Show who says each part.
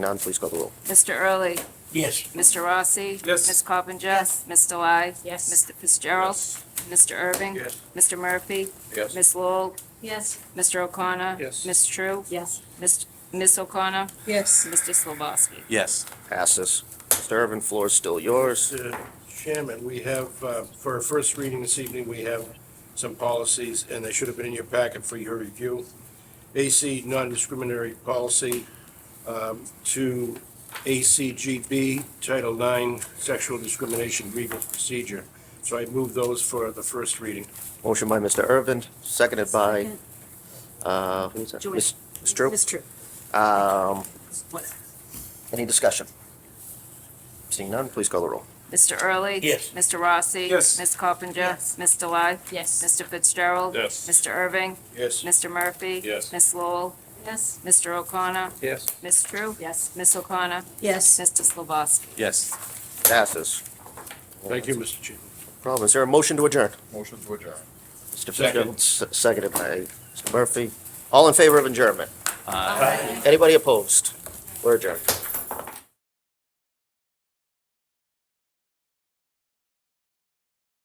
Speaker 1: None, please call the roll.
Speaker 2: Mr. Early?
Speaker 3: Yes.
Speaker 2: Mr. Rossi?
Speaker 3: Yes.
Speaker 2: Ms. Coppinger? Mr. Lai?
Speaker 4: Yes.
Speaker 2: Mr. Fitzgerald? Mr. Irving?
Speaker 3: Yes.
Speaker 2: Mr. Murphy?
Speaker 3: Yes.
Speaker 2: Ms. Lowell?
Speaker 4: Yes.
Speaker 2: Mr. O'Connor?
Speaker 3: Yes.
Speaker 2: Ms. True?
Speaker 4: Yes.
Speaker 2: Ms. Ms. O'Connor?
Speaker 4: Yes.
Speaker 2: Mr. Slabowski?
Speaker 5: Yes.
Speaker 1: Passes. Mr. Irvin, floor is still yours.
Speaker 6: Mr. Chairman, we have, uh, for our first reading this evening, we have some policies, and they should have been in your packet for your review. AC non-discriminatory policy um, to ACGB Title IX Sexual Discrimination Grievance Procedure. So I move those for the first reading.
Speaker 1: Motion by Mr. Irvin, seconded by, uh, who was that?
Speaker 4: Joy.
Speaker 1: Ms. Ms. Drew?
Speaker 4: It's true.
Speaker 1: Um, any discussion? Seeing none, please call the roll.
Speaker 2: Mr. Early?
Speaker 3: Yes.
Speaker 2: Mr. Rossi?
Speaker 3: Yes.
Speaker 2: Ms. Coppinger?
Speaker 4: Yes.
Speaker 2: Mr. Lai?
Speaker 4: Yes.
Speaker 2: Mr. Fitzgerald?
Speaker 3: Yes.
Speaker 2: Mr. Irving?
Speaker 6: Yes.
Speaker 2: Mr. Murphy?
Speaker 3: Yes.
Speaker 2: Ms. Lowell?
Speaker 4: Yes.
Speaker 2: Mr. O'Connor?
Speaker 3: Yes.
Speaker 2: Ms. True?
Speaker 4: Yes.
Speaker 2: Ms. O'Connor?
Speaker 4: Yes.
Speaker 2: Mr. Slabowski?
Speaker 5: Yes.
Speaker 1: Passes.
Speaker 6: Thank you, Mr. Chairman.
Speaker 1: Problem, is there a motion to adjourn?
Speaker 5: Motion to adjourn.
Speaker 1: Mr. Fitzgerald, se- seconded by Mr. Murphy. All in favor of adjournment? Anybody opposed? We're adjourned.